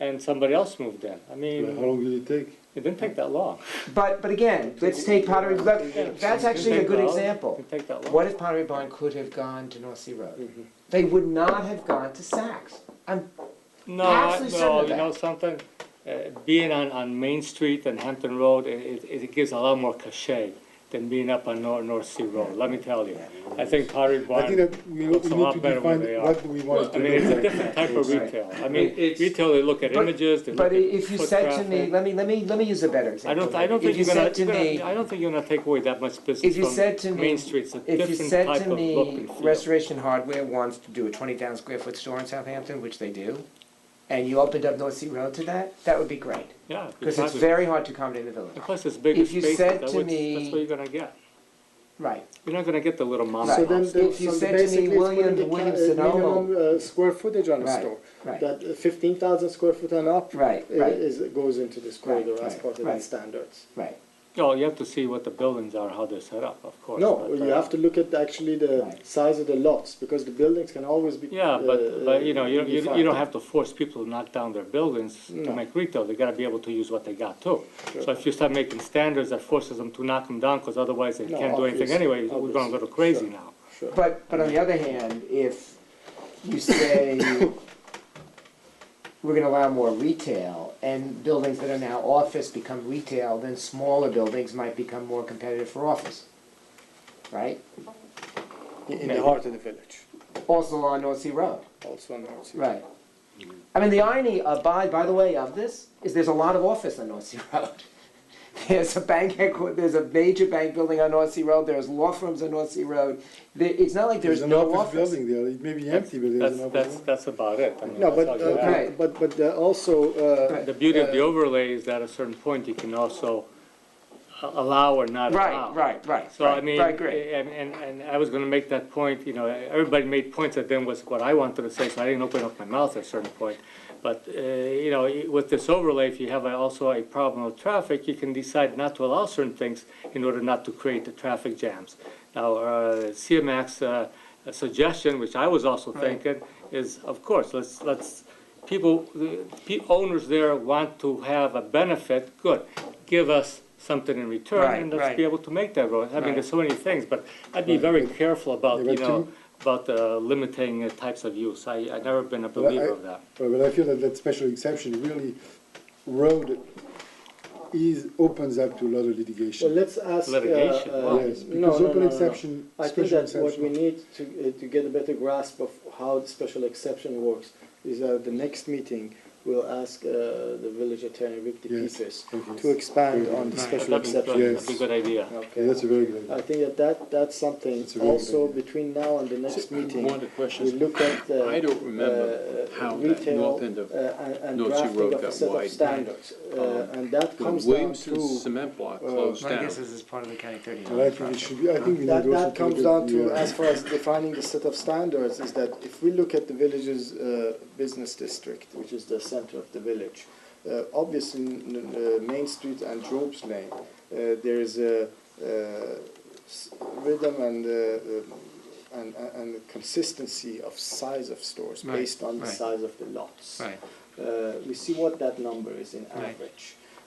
and somebody else moved in. I How mean, long did it take? it didn't take that long. But, but again, let's take Pottery, let- that's actually a good It example. didn't take that long. What if Pottery Barn could have gone to North Sea Road? Mm-hmm. They would not have gone to Saks. I'm, No, I- Absolutely certain no, of you know that. something? Uh, Being on, on Main Street and Hampton Road, it, it it gives a lot more cachet than being up on North, North Sea Road, let me tell you. I think Pottery I think Barn, that we, we need looks a lot to better where define they are. what do we want I to mean, it's a look like. different type of Right. retail. I mean, It's- retail, they look at but- images, they look but at i- if you foot said to me, traffic. let me, let me, let me use a better I example. don't, I don't If think you you're gonna, said to you're gonna, me- I don't think you're gonna take away that much business If you said to from me- Main Street, it's a If you different said type to of look me, and feel. Restoration Hardware wants to do a twenty thousand square foot store in Southampton, which they do, and you opened up North Sea Road to that, that would be great, Yeah, because it's exactly. very hard to accommodate the village. And plus, it's bigger if you spaces, said that's to what, me- that's what you're gonna get. Right, You're not gonna get the little mom Right. So and then, pop the- If you so said to me, basically, it's William putting the ca- Williams and uh, minimum uh, square footage on a Right, store. right. That uh, fifteen thousand square foot and up. Right, i- right. Is, goes into this corridor as right, part of the right. standards. right. No, you have to see what the buildings are, how they're set up, of course. No, but, you uh, have to look at actually the Right. size of the lots, because the buildings can always be. Yeah, uh, but, but you know, you, you you defined. don't have to force people to knock down their buildings to No. make retail. They gotta be able to use what they got too. So if you start making standards that forces them to knock them down, because otherwise they No, can't do anything obvious, anyway, we're going a obvious, little crazy sure. now. Sure. But, but on the other hand, if you say we're gonna allow more retail, and buildings that are now office become retail, then smaller buildings might become more competitive for office. Right? In in the heart of the village, Also on North Sea Road. also on North Sea. Right. I mean, the irony of, by, by the way, of this, is there's a lot of office on North Sea Road. There's a bank, headqu- there's a major bank building on North Sea Road, there's law firms on North Sea Road. There, it's not like there's There's an no office office. building there, it may be empty, but there's That's, an office. that's, building. that's about it. I mean, No, that's but, all you uh, have. Right. but, but uh, also, uh, Right. The beauty of the overlay is that at a certain point, you can also a- allow or not allow. Right, right, right. So I right, mean, Right, great. and, and, and I was gonna make that point, you know, everybody made points that then was what I wanted to say, so I didn't open up my mouth at a certain point. But, uh, you know, i- with this overlay, if you have a- also a problem with traffic, you can decide not to allow certain things in order not to create the traffic jams. Now, uh, CMAC's, uh, suggestion, which I was also thinking, is of course, let's, let's, people, the pe- owners there want to have a benefit, good. Give us something in return Right, and let's right. be able to make that road. I mean, Right. there's so many things, but I'd be very careful about, Yeah, you but know, to- about uh, limiting uh, types of use. I, I've never been a Well, I- believer of that. Well, But I feel that that special exception really, road is, opens up to a lot of well, litigation. let's ask. uh, Litigation, uh, wow. Yes, no, because open no, no, no, no. exception, I think special that what we exception. need to, uh, to get a better grasp of how the special exception works is that the next meeting, we'll ask uh, the village attorney, Rick Yes. DePietris, Okay. to expand on the Right. special That'd be good. exception. That'd be a good idea. Yeah, Okay, that's a very good idea. I think that, that that's something That's a very good also idea. between now and the next meeting. One of the We questions, look at the. I don't remember uh, how that retail, north end of uh, and- and North Sea drafting Road of a got set of widened. Um, Standards, uh, and that when comes down Williamson's to, cement block uh, closed Well, I down, guess this is part of the County 39 But I think it project. should be, I think we need that, also. that to comes look at down the, to, uh, as far as defining the set of standards, is that if we look at the village's, uh, business district, which is the center of the village, uh, obviously, n- n- uh, Main Street and Job's Lane, uh, there is a, uh, s- rhythm and, uh, uh, and, and consistency of size of stores Right, based on the right. size of the lots. Right. Uh, we see what that number is in Right. average.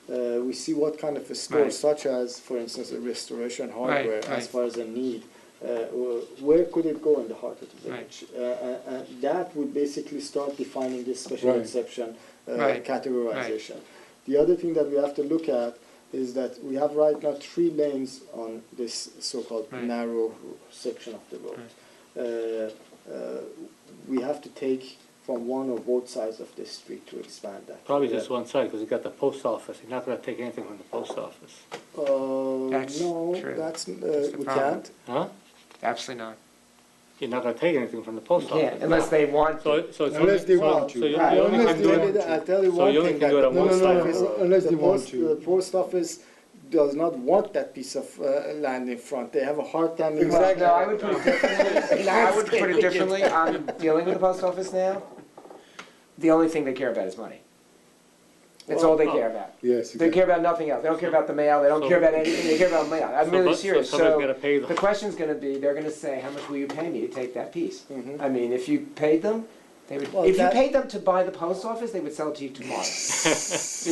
Uh, we see what kind of a store, Right. such as, for instance, a restoration hardware, right. as far as a need, uh, wh- where could it go in the heart of the Right. village? Uh, uh, uh, that would basically start defining this special Right. exception uh, Right. categorization. The other thing that we have to look at is that we have right now three lanes on this so-called Right. narrow section of the road. Uh, uh, we have to take from one or both sides of this street to expand that. Probably just one side, because you got the post office. You're not gonna take anything from the post office. Uh, That's no, true. that's, uh, That's the we problem. can't. Huh? Absolutely not. You're not gonna take anything from the post Yeah, office. unless they want to. So, so it's only, Unless they so, want so to. you you Right, only unless can do they it. did it, I'll tell you so one you only thing can do that it on the one post side. office- No, no, no, unless the they want post- to. The post office does not want that piece of uh, land in front, they have a hard time. in- Well, no, I would put it differently. I would put it differently. I'm dealing with the post office now. The only thing they care about is money. That's all they Well, oh. care about. Yes, They exactly. care about nothing else. They don't care about the mail. They don't care about anything. They care about mail. I'm So really but- so serious. somebody's So gotta pay the- the question's gonna be, they're gonna say, how much will you pay me to take that piece? I mean, if you paid them, They would, Well, if you that- paid them to buy the post office, they would sell it to you tomorrow.